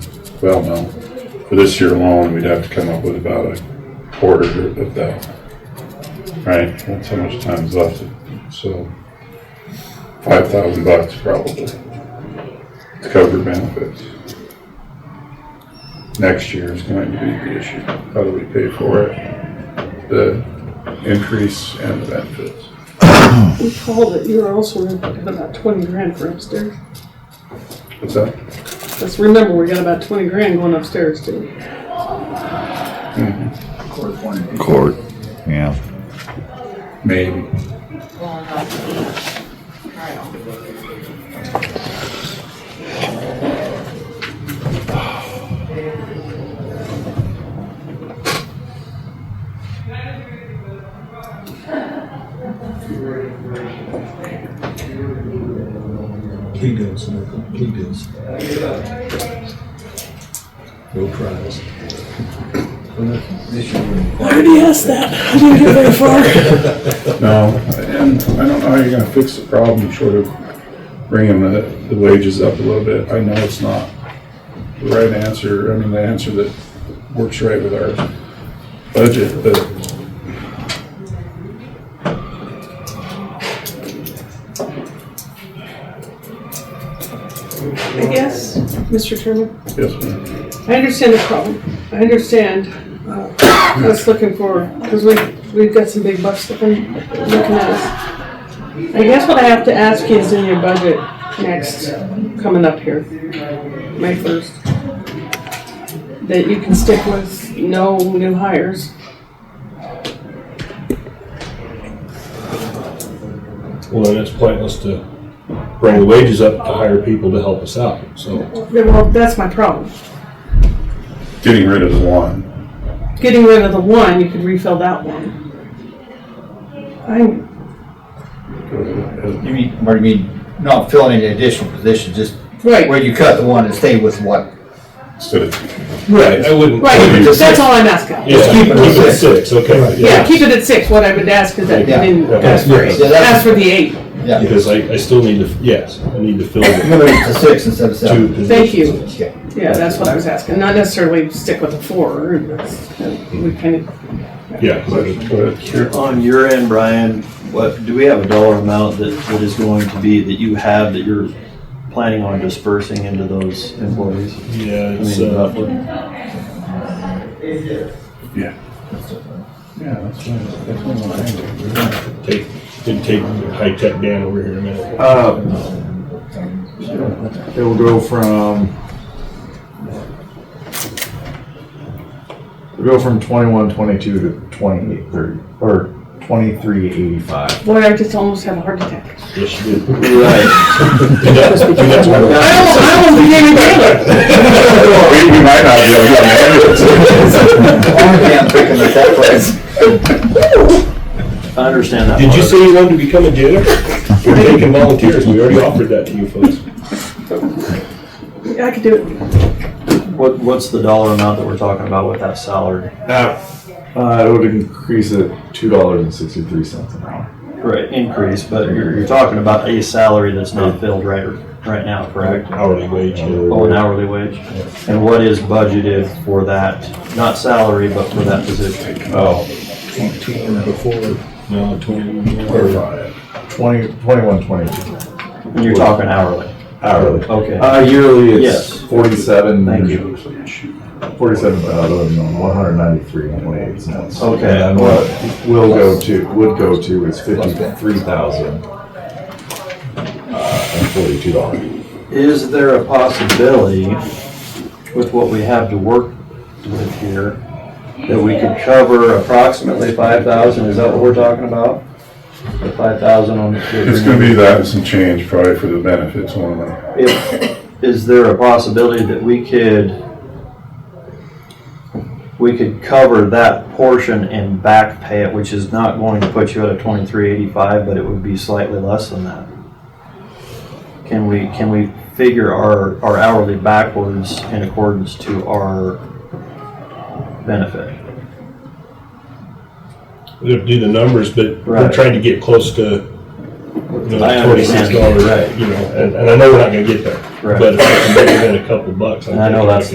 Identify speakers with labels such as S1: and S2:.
S1: well, no. For this year alone, we'd have to come up with about a quarter of that. Right, that's how much time's left, so five thousand bucks probably to cover benefits. Next year is going to be the issue. How do we pay for it? The increase and the benefits.
S2: We called it, you were also had about twenty grand for upstairs.
S1: What's that?
S2: Let's remember, we got about twenty grand going upstairs too.
S3: Court, yeah.
S1: Maybe.
S4: Plea deals, Michael, plea deals. No trials.
S1: No, and I don't know how you're gonna fix the problem short of bringing the, the wages up a little bit. I know it's not the right answer, I mean, the answer that works right with our budget, but
S2: I guess, Mr. Chairman,
S1: yes, ma'am.
S2: I understand the problem. I understand, uh, us looking for, because we, we've got some big bucks looking, looking at us. I guess what I have to ask you is in your budget next, coming up here, May first, that you can stick with no new hires.
S5: Well, then it's pointless to bring the wages up to hire people to help us out, so.
S2: Yeah, Well, that's my problem.
S1: getting rid of one.
S2: getting rid of the one, you could refill that one. I,
S6: You mean, what do you mean, not filling any additional positions, just where
S2: right,
S6: you cut the one and stay with what?
S1: Instead of,
S5: Right. I wouldn't.
S2: right,
S6: just
S2: that's
S6: six.
S2: all I'm asking.
S5: Yeah,
S6: keep it at six.
S5: six, okay,
S2: Yeah,
S5: yeah.
S2: keep it at six, what I would ask is that you
S6: Yeah.
S2: didn't ask for eight,
S6: Yeah, that's-
S2: ask for the eight.
S6: Yeah,
S5: Because I, I still need to, yes, I need to fill the
S6: limit it to six instead of
S5: two
S6: seven.
S5: positions.
S2: Thank you.
S6: Okay.
S2: Yeah, that's what I was asking, not necessarily stick with the four, that's- we kind of,
S5: Yeah, 'cause I-
S1: but here,
S7: On your end, Brian, what, do we have a dollar amount that, that is going to be, that you have, that you're planning on dispersing into those employees?
S5: yeah,
S7: I
S5: it's,
S7: mean,
S5: uh,
S7: roughly.
S1: yeah. Yeah, that's one, that's one of the things.
S5: take, it'd take high-tech Dan over here in a minute.
S8: Uh, It will go from, it'll go from twenty-one, twenty-two to twenty-eight, thirty, or twenty-three, eighty-five.
S2: boy, I just almost had a heart attack.
S5: Yes, you did.
S7: Right.
S5: And that- and that's why we're-
S2: I almost, I almost became a jailer.
S1: We we might not be able to.
S6: Only I'm picking at that place.
S7: I understand that.
S5: Did you
S7: part.
S5: say you wanted to become a jailer? We're taking volunteers, we already offered that to you folks.
S2: I could do it,
S7: What, what's the dollar amount that we're talking about with that salary?
S8: Uh, it would increase it two dollars and sixty-three cents an hour.
S7: Right, increase, but you're, you're talking about a salary that's not filled right, right now, correct?
S5: Hourly wage. you know.
S7: Oh, an hourly wage? And what is budgeted for that, not salary, but for that position?
S8: Oh,
S5: Before, no, twenty.
S8: or twenty, twenty-one, twenty-two
S7: And you're talking hourly?
S8: hourly.
S7: Okay.
S8: Uh, yearly,
S7: Yes.
S8: it's forty-seven.
S7: Thank you.
S8: Forty-seven thousand, one hundred ninety-three and twenty-eight cents.
S7: Okay.
S8: And what will go to, would go to is fifty-three thousand, uh, and forty-two dollars.
S7: Is there a possibility with what we have to work with here that we could cover approximately five thousand? Is that what we're talking about? The five thousand on.
S1: It's gonna be that and some change probably for the benefits only.
S7: If, is there a possibility that we could, we could cover that portion and back pay it, which is not going to put you at a twenty-three eighty-five, but it would be slightly less than that? Can we, can we figure our, our hourly backwards in accordance to our benefit?
S5: We'd have to do the numbers, but we're
S7: Right.
S5: trying to get close to, you
S7: I
S5: know,
S7: understand.
S5: twenty-six dollars,
S7: Right.
S5: you know, and, and I know we're not gonna get there.
S7: Right.
S5: But if I can make it in a couple bucks.
S7: And I know
S5: think
S7: that's